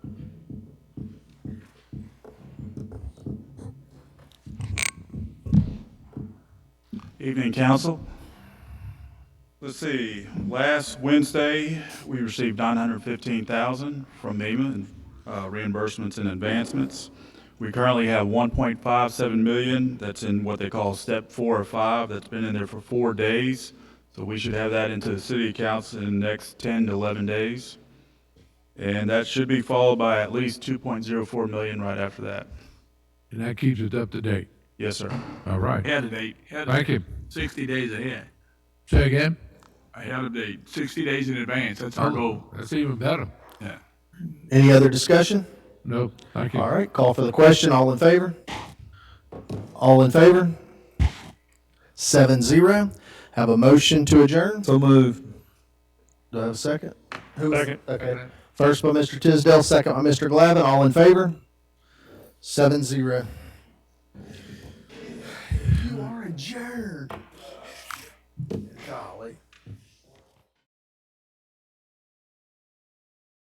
Evening, council. Let's see, last Wednesday, we received 915,000 from MEMA in uh, reimbursements and advancements. We currently have 1.57 million that's in what they call step four or five, that's been in there for four days. So we should have that into the city accounts in the next 10 to 11 days. And that should be followed by at least 2.04 million right after that. And that keeps it up to date. Yes, sir. All right. Had a date. Had a Thank you. Sixty days ahead. Say again? I had a date. Sixty days in advance. That's Oh. our goal. That's even better. Yeah. Any other discussion? No, thank All you. right, call for the question. All in favor? All in favor? Seven zero. Have a motion to adjourn? So move. Do I have a second? Who- Second. Okay. First by Mr. Tisdale, second by Mr. Glavin. All in favor? Seven zero. You are adjourned. Golly.